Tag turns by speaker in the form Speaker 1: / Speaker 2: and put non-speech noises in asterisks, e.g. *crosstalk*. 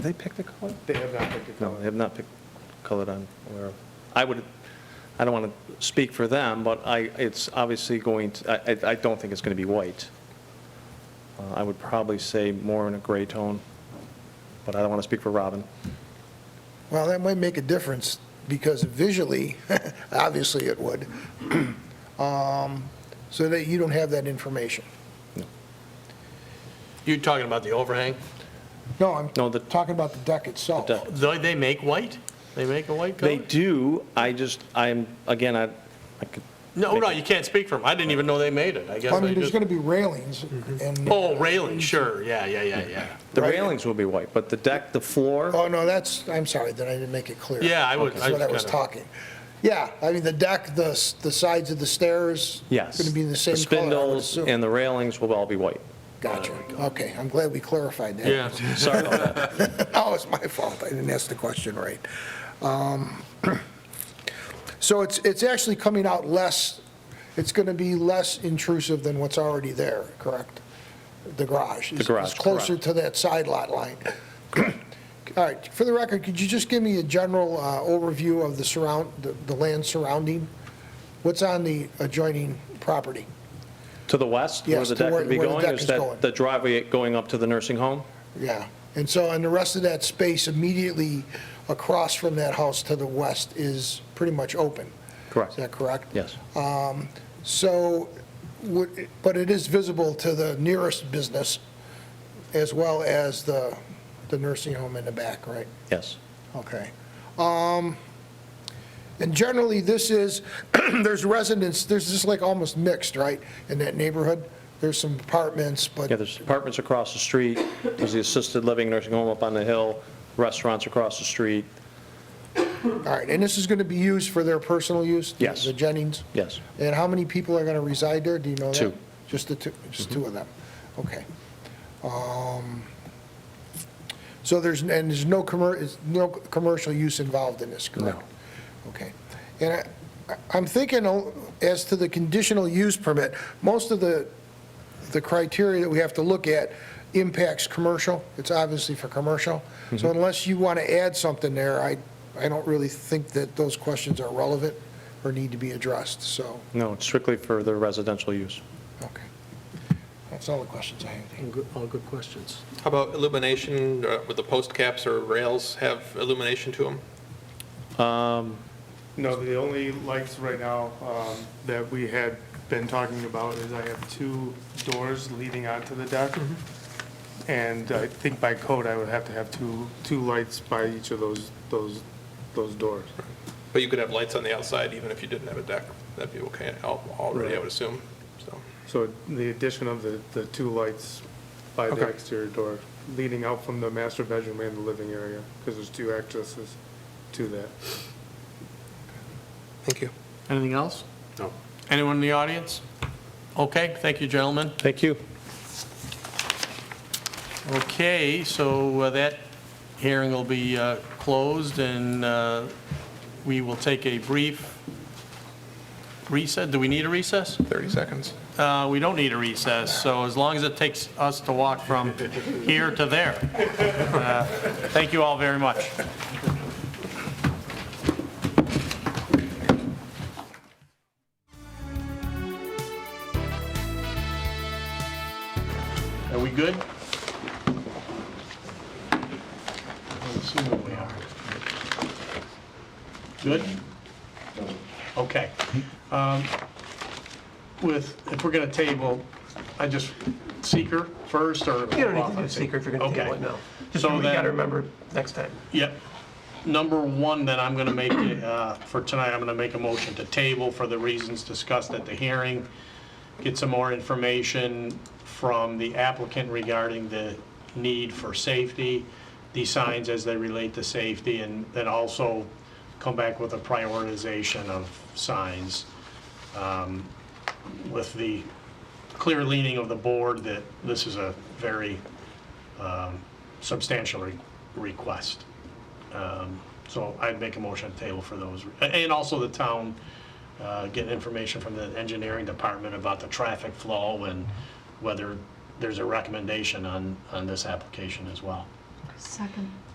Speaker 1: They picked a color?
Speaker 2: They have not picked a
Speaker 1: No, they
Speaker 2: color.
Speaker 1: have not picked color that I'm aware of. I would, I don't want to speak for them, but I, it's obviously going, to- I, I- I don't think it's going to be white. Uh, I would probably say more in a gray tone, but I don't want to speak for Robin.
Speaker 3: Well, that might make a difference, because visually, *laughs* obviously it would, *clears throat* Um, so that you don't have that information.
Speaker 4: You're talking about the overhang?
Speaker 3: No, I'm
Speaker 1: No, the-
Speaker 3: talking about the deck itself.
Speaker 1: The deck.
Speaker 4: They they make white? They make a white color?
Speaker 1: They do, I just, I'm, again, I, I could.
Speaker 4: No,
Speaker 1: make
Speaker 4: no,
Speaker 1: it-
Speaker 4: you can't speak for them. I didn't even know they made it, I guess.
Speaker 3: I
Speaker 4: I
Speaker 3: mean, there's
Speaker 4: just-
Speaker 3: going to be railings, and, oh,
Speaker 4: Oh, railing, sure, yeah, yeah, yeah, yeah.
Speaker 1: The
Speaker 3: Right. Oh,
Speaker 1: railings will be white, but the deck, the floor,
Speaker 3: no, that's, I'm sorry, that I didn't make it clear.
Speaker 4: Yeah, I would-
Speaker 3: That's
Speaker 4: I
Speaker 3: what I was
Speaker 4: kinda-
Speaker 3: talking. Yeah, I mean, the deck, the, s- the sides of the stairs.
Speaker 1: yes.
Speaker 3: Going to be the same color, I would
Speaker 1: spindles
Speaker 3: assume.
Speaker 1: and the railings will all be white.
Speaker 3: *laughs* Gotcha, okay, I'm glad we clarified that.
Speaker 4: Yeah,
Speaker 1: Sorry about that.
Speaker 3: *laughs* Oh, it's my fault, I didn't ask the question right. Um, *clears throat* So it's, it's actually coming out less, it's going to be less intrusive than what's already there, correct? The garage?
Speaker 1: The garage,
Speaker 3: It's closer
Speaker 1: correct.
Speaker 3: to that side lot line. *clears throat* All right, for the record, could you just give me a general uh, overview of the surround, the- the land surrounding? What's on the adjoining property?
Speaker 1: To the west, where
Speaker 3: Yes,
Speaker 1: the
Speaker 3: to
Speaker 1: deck
Speaker 3: where-
Speaker 1: would be
Speaker 3: where the
Speaker 1: going,
Speaker 3: deck
Speaker 1: is
Speaker 3: is going.
Speaker 1: that the driveway going up to the nursing home?
Speaker 3: Yeah, and so, and the rest of that space immediately across from that house to the west is pretty much open.
Speaker 1: Correct.
Speaker 3: Is that correct?
Speaker 1: Yes.
Speaker 3: So, would- but it is visible to the nearest business as well as the, the nursing home in the back, right?
Speaker 1: Yes.
Speaker 3: Okay. Um, And generally, this is, *clears throat* there's residents, there's just like almost mixed, right, in that neighborhood? There's some apartments, but
Speaker 1: Yeah, there's apartments across the street, there's the assisted living nursing home up on the hill, restaurants across the street,
Speaker 3: All right, and this is going to be used for their personal use? the-
Speaker 1: Yes.
Speaker 3: The Jennings?
Speaker 1: yes.
Speaker 3: And how many people are going to reside there? Do you know that?
Speaker 1: Two.
Speaker 3: Just the two, just two of them? Okay. Um, So there's, and there's no commer, is no commercial use involved in this, correct? Okay. And I, I'm thinking oh, as to the conditional use permit, most of the, the criteria that we have to look at impacts commercial. It's obviously for commercial. So unless you want to add something there, I, I don't really think that those questions are relevant or need to be addressed, so,
Speaker 1: No, it's strictly for the residential use.
Speaker 3: okay. That's all the questions I have.
Speaker 4: All good questions.
Speaker 5: How about illumination, uh, with the post caps or rails have illumination to them?
Speaker 2: No, the only lights right now um, that we had been talking about is I have two doors leading onto the deck. And I think by code, I would have to have two, two lights by each of those, those, those doors.
Speaker 5: But you could have lights on the outside even if you didn't have a deck. That'd be okay al- already, I would assume, so.
Speaker 2: So the addition of the, the two lights by the
Speaker 5: Okay.
Speaker 2: exterior door leading out from the master bedroom and the living area, because there's two accesses to that.
Speaker 5: Thank you.
Speaker 4: Anything else? No. Anyone in the audience? Okay, thank you, gentlemen.
Speaker 1: Thank you.
Speaker 4: Okay, so uh, that hearing will be uh, closed, and uh, we will take a brief recess. Do we need a recess?
Speaker 5: 30 seconds.
Speaker 4: Uh, We don't need a recess, so as long as it takes us to walk *laughs* from here to there. Uh, Thank you all very much. Are we good? Let's see where we are. Good? Okay. Um, With, if we're going to table, I just, seeker first, or?
Speaker 6: You don't need to do secret if you're going to table it, no. Just
Speaker 4: So
Speaker 6: we got to
Speaker 4: then,
Speaker 6: remember next time.
Speaker 4: yep. Number one, then I'm going to make, it, uh, for tonight, I'm going to make a motion to table for the reasons discussed at the hearing, get some more information from the applicant regarding the need for safety, these signs as they relate to safety, and then also come back with a prioritization of signs um, with the clear leaning of the board that this is a very um, substantial re- request. Um, So I'd make a motion to table for those. And also the town uh, getting information from the engineering department about the traffic flow and whether there's a recommendation on, on this application as well.
Speaker 7: Second.